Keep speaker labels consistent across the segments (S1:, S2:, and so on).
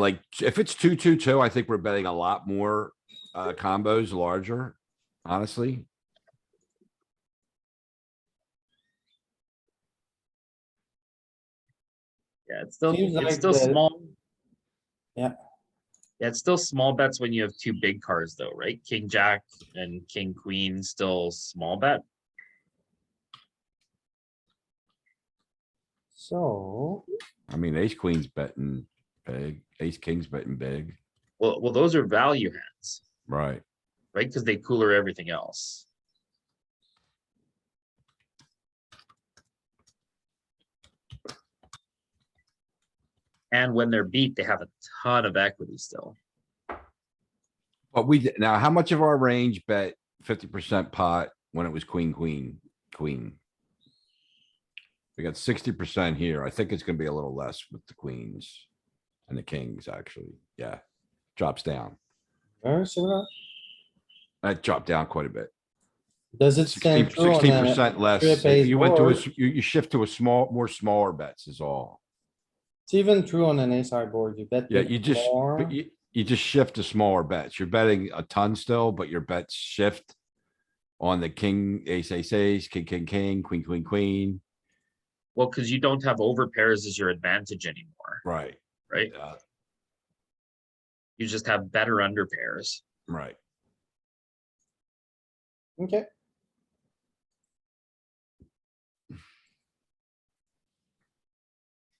S1: like, if it's two, two, two, I think we're betting a lot more, uh, combos larger, honestly.
S2: Yeah, it's still,
S3: Seems
S2: it's
S3: like
S2: still
S3: the-
S2: small.
S3: Yeah.
S2: Yeah, it's still small bets when you have two big cards though, right? King, jack and king, queen, still small bet.
S3: So,
S1: I mean, ace queen's betting big, ace king's betting big,
S2: Well, well, those are value hands,
S1: right?
S2: right? Because they cooler everything else. And when they're beat, they have a ton of equity still.
S1: But we, did- now, how much of our range bet fifty percent pot when it was queen, queen, queen? We got sixty percent here. I think it's gonna be a little less with the queens and the kings, actually. Yeah, drops down.
S3: very similar.
S1: That dropped down quite a bit.
S3: Does it
S1: Sixteen
S3: stand true on a
S1: percent less.
S3: strip ace
S1: If You went to a,
S3: board?
S1: s- you, you shift to a small, more smaller bets is all.
S3: It's even true on an ace high board. You bet.
S1: Yeah,
S3: big
S1: you just,
S3: more.
S1: but you, you just shift to smaller bets. You're betting a ton still, but your bets shift on the king, ace, ace, ace, king, king, king, queen, queen, queen,
S2: Well, because you don't have over pairs as your advantage anymore,
S1: right?
S2: right?
S1: Uh,
S2: You just have better under pairs.
S1: Right.
S3: Okay,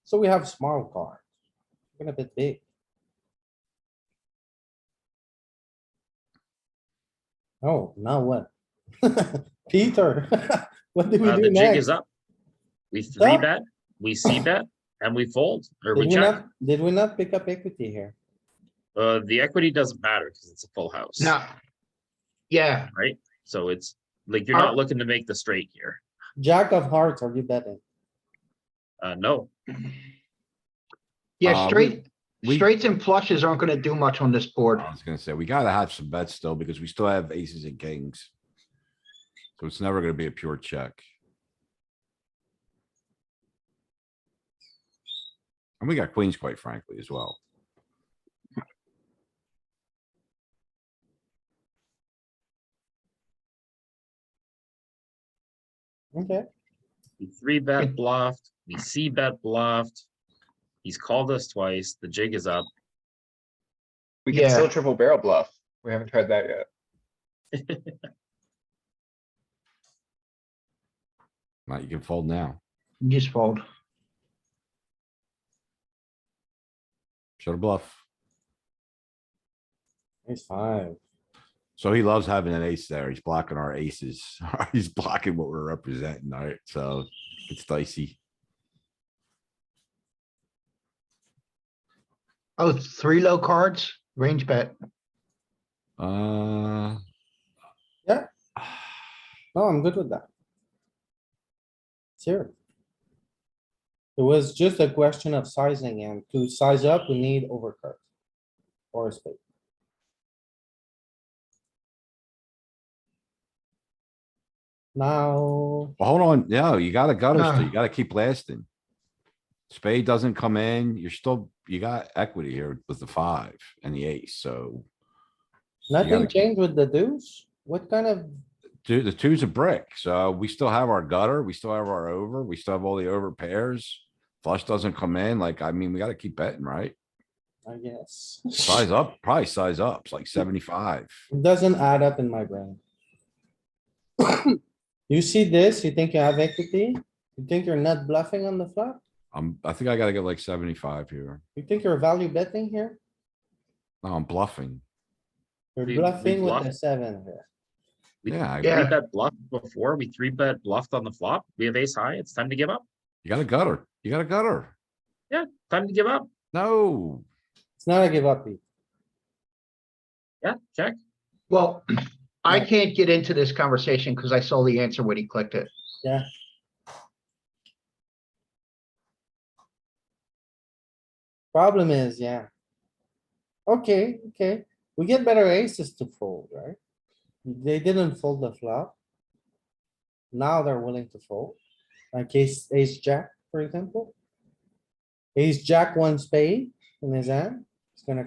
S3: so we have small cards. We're gonna bet big. Oh, now what? Peter, what do we
S2: Uh, the
S3: do
S2: jig is
S3: next?
S2: up. We three
S3: Stop.
S2: bet, we see bet, and we fold, or we
S3: Did we
S2: check.
S3: not, did we not pick up equity here?
S2: Uh, the equity doesn't matter because it's a full house.
S4: No. Yeah,
S2: Right? So it's like you're not
S4: Uh,
S2: looking to make the straight here.
S3: Jack of hearts, are you betting?
S2: Uh, no,
S1: Uh,
S4: yeah,
S1: we-
S4: straight,
S1: we-
S4: straights and flushes aren't gonna do much on this board.
S1: I was gonna say, we gotta have some bets still because we still have aces and kings. So it's never gonna be a pure check. And we got queens quite frankly as well.
S3: Okay,
S2: we three bet bluffed, we see bet bluffed. He's called us twice. The jig is up.
S5: We can still
S4: Yeah.
S5: triple barrel bluff. We haven't tried that yet.
S1: Not you can fold now.
S4: Just fold.
S1: Shut a bluff.
S3: ace five.
S1: So he loves having an ace there. He's blocking our aces. He's blocking what we're representing, alright, so it's dicey.
S4: Oh, three low cards, range bet.
S1: Uh.
S3: Yeah. No, I'm good with that. It's here. It was just a question of sizing and to size up, we need overcard. Or a spade. Now,
S1: Well, hold on, no, you gotta gut us, though. you
S4: Ah.
S1: gotta keep lasting. Spade doesn't come in, you're still, you got equity here with the five and the ace, so.
S3: nothing
S1: gotta-
S3: changed with the deuce? What kind of,
S1: Dude, the two's a brick, so we still have our gutter, we still have our over, we still have all the over pairs. Flush doesn't come in, like, I mean, we gotta keep betting, right?
S3: I guess,
S1: Size up, probably size up, it's like seventy-five.
S3: it doesn't add up in my brain. You see this, you think you have equity? You think you're not bluffing on the flop?
S1: I'm, I think I gotta get like seventy-five here.
S3: You think you're value betting here?
S1: No, I'm bluffing.
S3: You're
S2: We- we
S3: bluffing with the
S2: bluff.
S3: seven here.
S2: We-
S1: Yeah, I-
S2: Three
S4: Yeah.
S2: bet bluff before, we three bet bluffed on the flop. We have ace high. It's time to give up.
S1: you got a gutter, you got a gutter.
S2: Time to give up.
S1: No,
S3: It's not a give up beat.
S2: Yeah, check.
S4: Well, I
S3: Yeah.
S4: can't get into this conversation because I saw the answer when he clicked it.
S3: Problem is, yeah. Okay, okay. We get better aces to fold, right? They didn't fold the flop. Now they're willing to fold. Like ace, ace jack, for example. Ace jack one spade in his hand, It's gonna